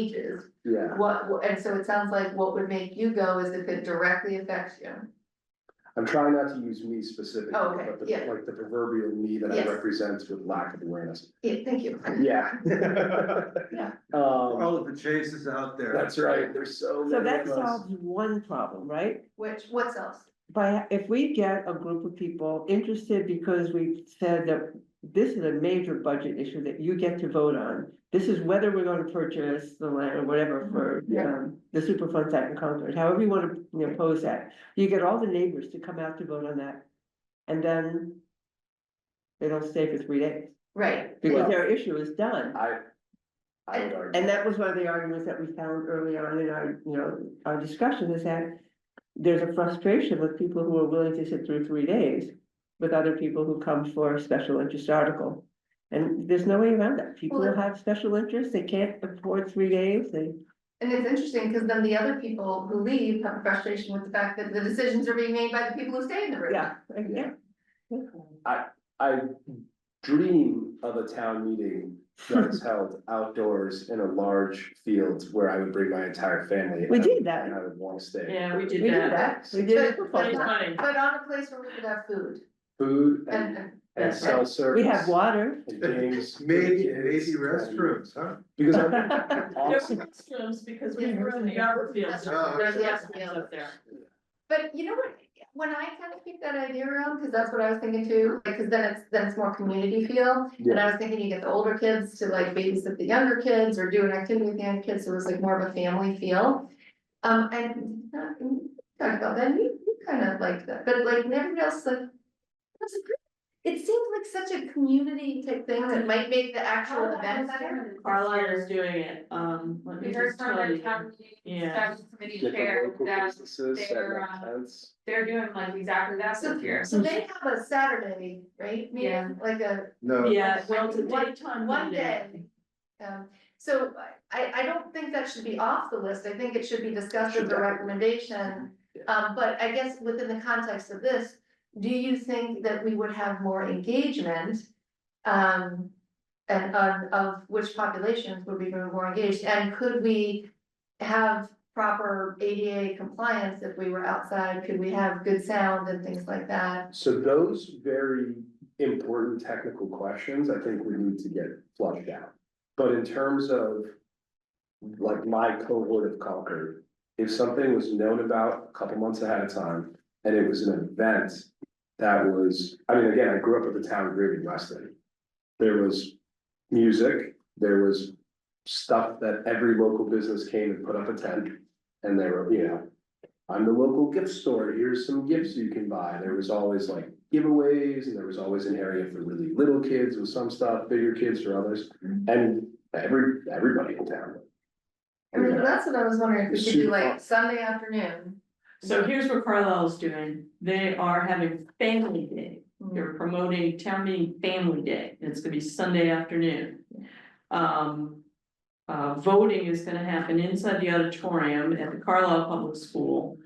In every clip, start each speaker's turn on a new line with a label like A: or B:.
A: ages,
B: Yeah,
A: what, and so it sounds like what would make you go is if it directly affects you.
B: I'm trying not to use me specifically,
A: Oh, okay,
B: but the,
A: yeah.
B: like the proverbial me that I
A: Yes.
B: represent with lack of awareness.
A: Yeah, thank you.
B: Yeah.
A: Yeah.
B: Um,
C: All of the chases out there.
B: that's right, there's so many
D: So
B: of
D: that
B: us.
D: solves one problem, right?
A: Which, what else?
D: By, if we get a group of people interested because we've said that this is a major budget issue that you get to vote on. This is whether we're gonna purchase the land or whatever for,
A: Yeah.
D: um, the Superfund site in Concord, however you wanna, you know, pose that. You get all the neighbors to come out to vote on that. And then they don't stay for three days
A: Right,
D: because
B: Well-
D: their issue is done.
B: I. I would argue.
D: And that was one of the arguments that we found early on in our, you know, our discussion is that there's a frustration with people who are willing to sit through three days with other people who come for a special interest article. And there's no way around that. People
A: Well, it-
D: have special interests. They can't afford three days. They,
A: and it's interesting, because then the other people who leave have frustration with the fact that the decisions are being made by the people who stay in the room.
D: yeah, I- yeah.
B: I dream of a town meeting that is held outdoors in a large field where I would bring my entire family.
D: We
B: and I-
D: did that.
B: And I would want to stay.
E: Yeah, we
D: We
E: did
D: did
E: that.
D: that. We did it for
A: But-
E: That is
D: fun.
E: funny.
A: But on a place where we could have food
B: Food
A: and, and,
B: and, and
E: That's right.
B: self-service.
D: We have water.
B: And games. for the
C: Maybe,
B: kids,
C: maybe
B: and-
C: restrooms, huh?
B: Because I'm
E: There
B: honestly,
E: were restrooms because we were in the arbor fields,
C: Oh,
E: there's
A: okay.
E: restrooms up there.
A: but you know what? When I kind of keep that idea around, because that's what I was thinking too, because then it's, then it's more community feel. And I was thinking you get the older kids to like babysit the younger kids or do an activity with the younger kids, so it was like more of a family feel. Um, and uh, we talked about that, you, you kind of liked that, but like everybody else, like. that's a great- It seems like such a community type thing that might make the actual event better.
E: Carlisle is doing it, um, let me
F: We heard
E: just
F: from
E: tell
F: their
E: you.
F: town meeting,
E: Yeah.
F: special committee
B: get the
F: chair,
B: local
F: that
B: businesses and
F: they're,
B: like
F: um,
B: tents.
F: they're doing like exactly that
A: So,
F: this year.
A: so they have a Saturday, right,
F: Yeah.
A: meeting, like a
C: No,
E: Yeah, well, it's a
A: One-
E: daytime
A: one
E: meeting.
A: day. Um, so I, I don't think that should be off the list, I think it should be discussed as
B: Should
A: a
B: definitely.
A: recommendation. Um, but I guess within the context of this, do you think that we would have more engagement? Um, and of, of which populations would be more engaged, and could we have proper ADA compliance if we were outside? Could we have good sound and things like that?
B: So those very important technical questions, I think we need to get flushed out. But in terms of like my cohort of Concord, if something was known about a couple months ahead of time and it was an event that was, I mean, again, I grew up at the town of Reading, Weston. There was music, there was stuff that every local business came and put up a tent and they were, you know, I'm the local gift store, here's some gifts you can buy, there was always like giveaways, and there was always an area for really little kids with some stuff, bigger kids for others. And every, everybody in town.
A: I mean, that's what I was wondering, if we should do
B: Super.
A: like Sunday afternoon.
E: So here's what Carlisle's doing, they are having family day, they're promoting town meeting family day, and it's gonna be Sunday afternoon. Um, uh, voting is gonna happen inside the auditorium at the Carlisle Public School.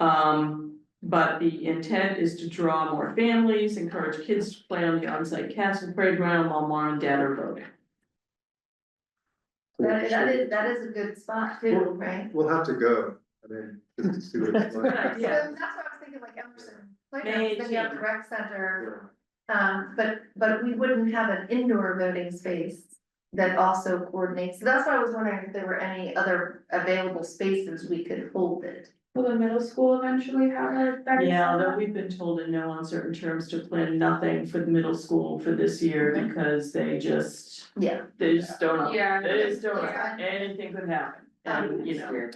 E: Um, but the intent is to draw more families, encourage kids to play on the onsite castle playground while mom and dad are voting.
A: That, that is, that is a good spot too, right?
C: we'll have to go, I mean, just to see what it's
E: Good
A: So
C: like.
A: that's
E: idea.
A: what I was thinking, like Emerson, playground, then you have the
E: Maybe.
A: rec center, um, but, but we wouldn't have an indoor voting space. That also coordinates, so that's why I was wondering if there were any other available spaces we could hold it.
F: Will the middle school eventually have a better?
E: Yeah, though we've been told in no uncertain terms to plan nothing for the middle school for this year because they just,
A: Yeah.
E: they just don't. know.
F: Yeah.
E: They just don't, know.
A: Yeah.
E: anything could happen, and you know,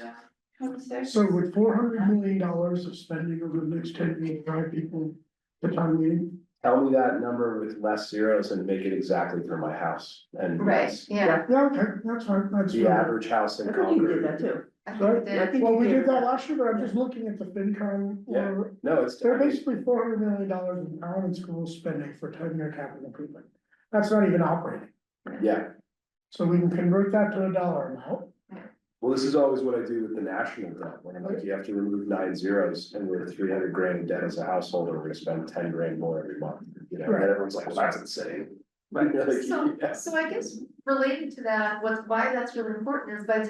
G: So with four hundred million dollars of spending over the next ten years, drive people to town meeting,
B: Tell me that number with less zeros and make it exactly for my house, and
A: Right,
B: that's
A: yeah,
G: yeah, okay, that's fine, that's.
B: the
G: fine.
B: average house in
D: I think you did
B: Concord.
D: that too.
A: I
G: Sorry?
A: think
D: I
A: that,
D: think
G: Well,
D: you
G: we
D: did
G: did that
D: that.
G: last year, but I'm just looking at the FinCom,
B: Yeah.
G: or,
B: No, it's,
G: they're basically four hundred million dollars in town and school spending for town year capital improvement. That's not even operating,
B: yeah,
G: so we can convert that to a dollar amount.
B: Well, this is always what I do with the national debt, when I'm like, you have to remove nine zeros and we're three hundred grand in debt as a household, and we're gonna spend ten grand more every month. You know, and
G: Right.
B: everyone's like, well, that's insane.
E: Right.
B: Like,
A: so,
B: yeah.
A: so I guess related to that, what's, why that's really important is by the